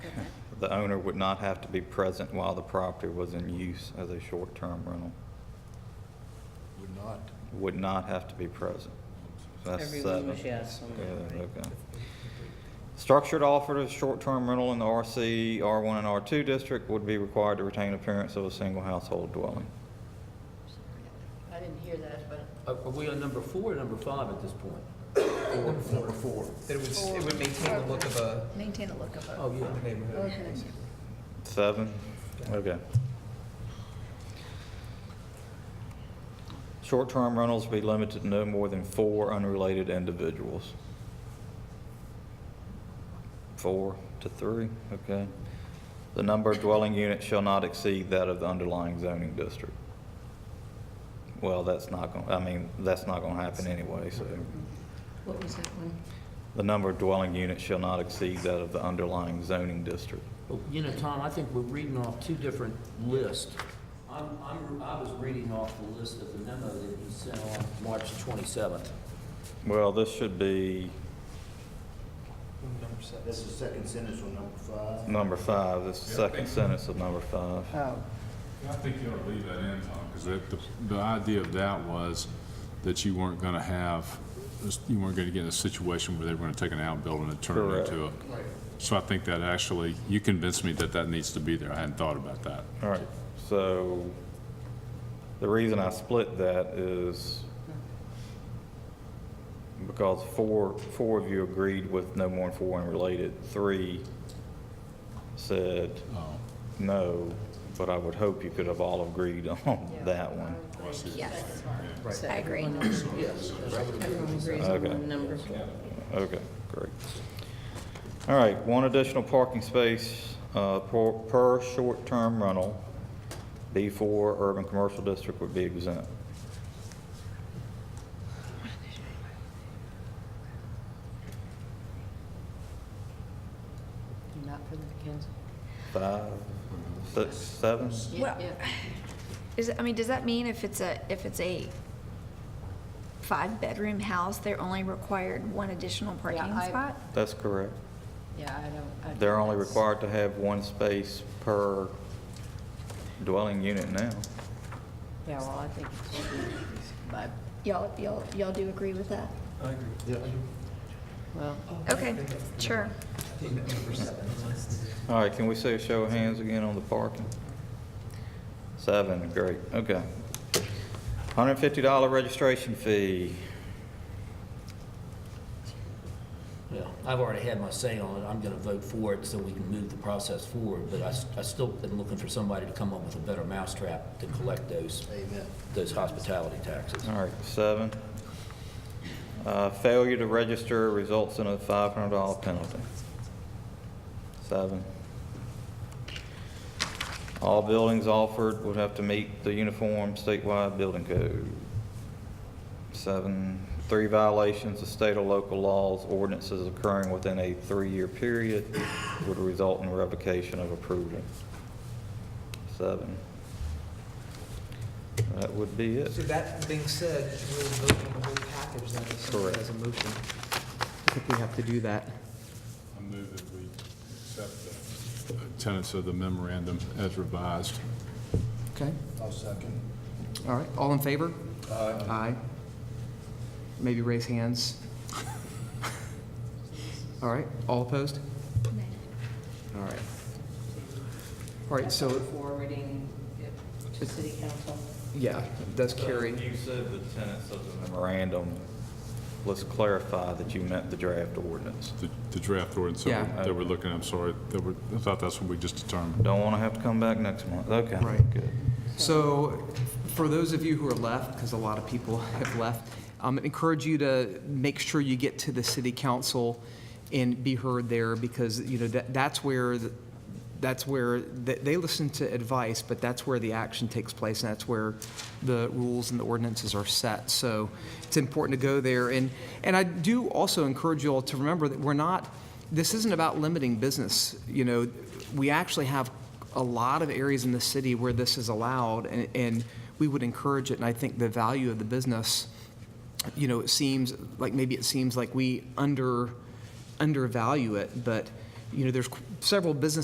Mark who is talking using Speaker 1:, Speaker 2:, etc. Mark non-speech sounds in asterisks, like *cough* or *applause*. Speaker 1: the owner would not have to be present while the property was in use as a short-term rental.
Speaker 2: Would not.
Speaker 1: Would not have to be present. So that's
Speaker 3: Everyone was
Speaker 1: seven.
Speaker 3: yes on that,
Speaker 1: Yeah,
Speaker 3: right?
Speaker 1: okay. Structured offered as short-term rental in the RC, R1 and R2 district would be required to retain appearance of a single household dwelling.
Speaker 4: I didn't hear that, but
Speaker 5: Are are we on number four or number five at this point?
Speaker 2: Number four.
Speaker 6: That it would, s- it would maintain the look of a,
Speaker 4: maintain the look of it.
Speaker 5: Oh,
Speaker 6: of the
Speaker 5: yeah.
Speaker 6: neighborhood.
Speaker 4: Okay.
Speaker 1: Seven? Okay. Short-term rentals be limited to no more than four unrelated individuals. Four to three, okay. The number of dwelling units shall not exceed that of the underlying zoning district. Well, that's not gonna, I mean, that's not gonna happen anyway, so.
Speaker 4: What was that one?
Speaker 1: The number of dwelling units shall not exceed that of the underlying zoning district.
Speaker 5: Well, You know, Tom, I think we're reading off two different lists. I'm, I'm, I was reading off the list of the memo that you sent on March 27th.
Speaker 1: Well, this should be
Speaker 6: Number seven.
Speaker 2: That's the second sentence on number five.
Speaker 1: Number five, this is the second sentence of number five.
Speaker 3: Oh,
Speaker 7: I think you ought to leave that in, Tom, because the, the idea of that was that you weren't going to have, you weren't going to get in a situation where they were going to take an outbuilding and turn it into a. So I think that actually, you convinced me that that needs to be there. I hadn't thought about that.
Speaker 1: All right, so the reason I split that is because four, four of you agreed with no more than four unrelated. Three said
Speaker 7: Oh,
Speaker 1: no, but I would hope you could have all agreed *laughs* on that one.
Speaker 4: Yes,
Speaker 3: so
Speaker 4: I agree.
Speaker 5: Yes.
Speaker 3: everyone agrees
Speaker 1: Okay.
Speaker 3: on number four.
Speaker 1: Okay, great. All right, one additional parking space uh, per per short-term rental. B4 urban commercial district would be exempt.
Speaker 3: Not for the council.
Speaker 1: Five, six, seven?
Speaker 4: Yeah,
Speaker 8: Well-
Speaker 4: yeah.
Speaker 8: Is, it- I mean, does that mean if it's a, if it's a five-bedroom house, they're only required one additional parking
Speaker 4: I-
Speaker 8: spot?
Speaker 1: That's correct.
Speaker 4: Yeah, I don't. I-
Speaker 1: They're only required to have one space per dwelling unit now.
Speaker 3: Yeah, well, I think it should be, but,
Speaker 8: Y'all, y'all, y'all do agree with that?
Speaker 6: I agree. with
Speaker 2: Yeah.
Speaker 3: well,
Speaker 8: Okay, sure.
Speaker 6: that. I think that number seven was-
Speaker 1: All right, can we see a show of hands again on the parking? Seven, great, okay. $150 registration fee.
Speaker 5: Yeah, I've already had my say on it. I'm going to vote for it so we can move the process forward, but I, s- I still am looking for somebody to come up with a better mousetrap to collect those,
Speaker 2: Amen.
Speaker 5: those hospitality taxes.
Speaker 1: All right, seven. Uh, Failure to register results in a $500 penalty. Seven. All buildings offered would have to meet the uniform statewide building code. Seven, three violations of state or local laws, ordinances occurring within a three-year period would result in revocation of approval. Seven. That would be it.
Speaker 6: So that being said, we'll vote on the whole package then, if somebody
Speaker 1: Correct.
Speaker 6: has a motion. I think we have to do that.
Speaker 7: I move that we accept the tenets of the memorandum as revised.
Speaker 6: Okay,
Speaker 2: I'll second.
Speaker 6: all right, all in favor? Aye. Maybe raise hands. All right, all opposed? All right. All right, so,
Speaker 3: forwarding it to city council.
Speaker 6: yeah, that's carry.
Speaker 1: You said the tenets of the memorandum. Let's clarify that you meant the draft ordinance.
Speaker 7: The- The draft ordinance that
Speaker 6: Yeah.
Speaker 7: we're- that we're looking, I'm sorry, that we're, I thought that's what we just determined.
Speaker 1: Don't want to have to come back next month. Okay.
Speaker 6: Right.
Speaker 1: Good.
Speaker 6: So, for those of you who are left, because a lot of people *laughs* have left, um, encourage you to make sure you get to the city council and be heard there, because, you know, that, that's where, the- that's where, they, they listen to advice, but that's where the action takes place, and that's where the rules and the ordinances are set. So, it's important to go there, and, and I do also encourage you all to remember that we're not, this isn't about limiting business, you know, we actually have a lot of areas in the city where this is allowed, and, and we would encourage it, and I think the value of the business, you know, it seems, like, maybe it seems like we under, undervalue it, but, you know, there's qu- several businesses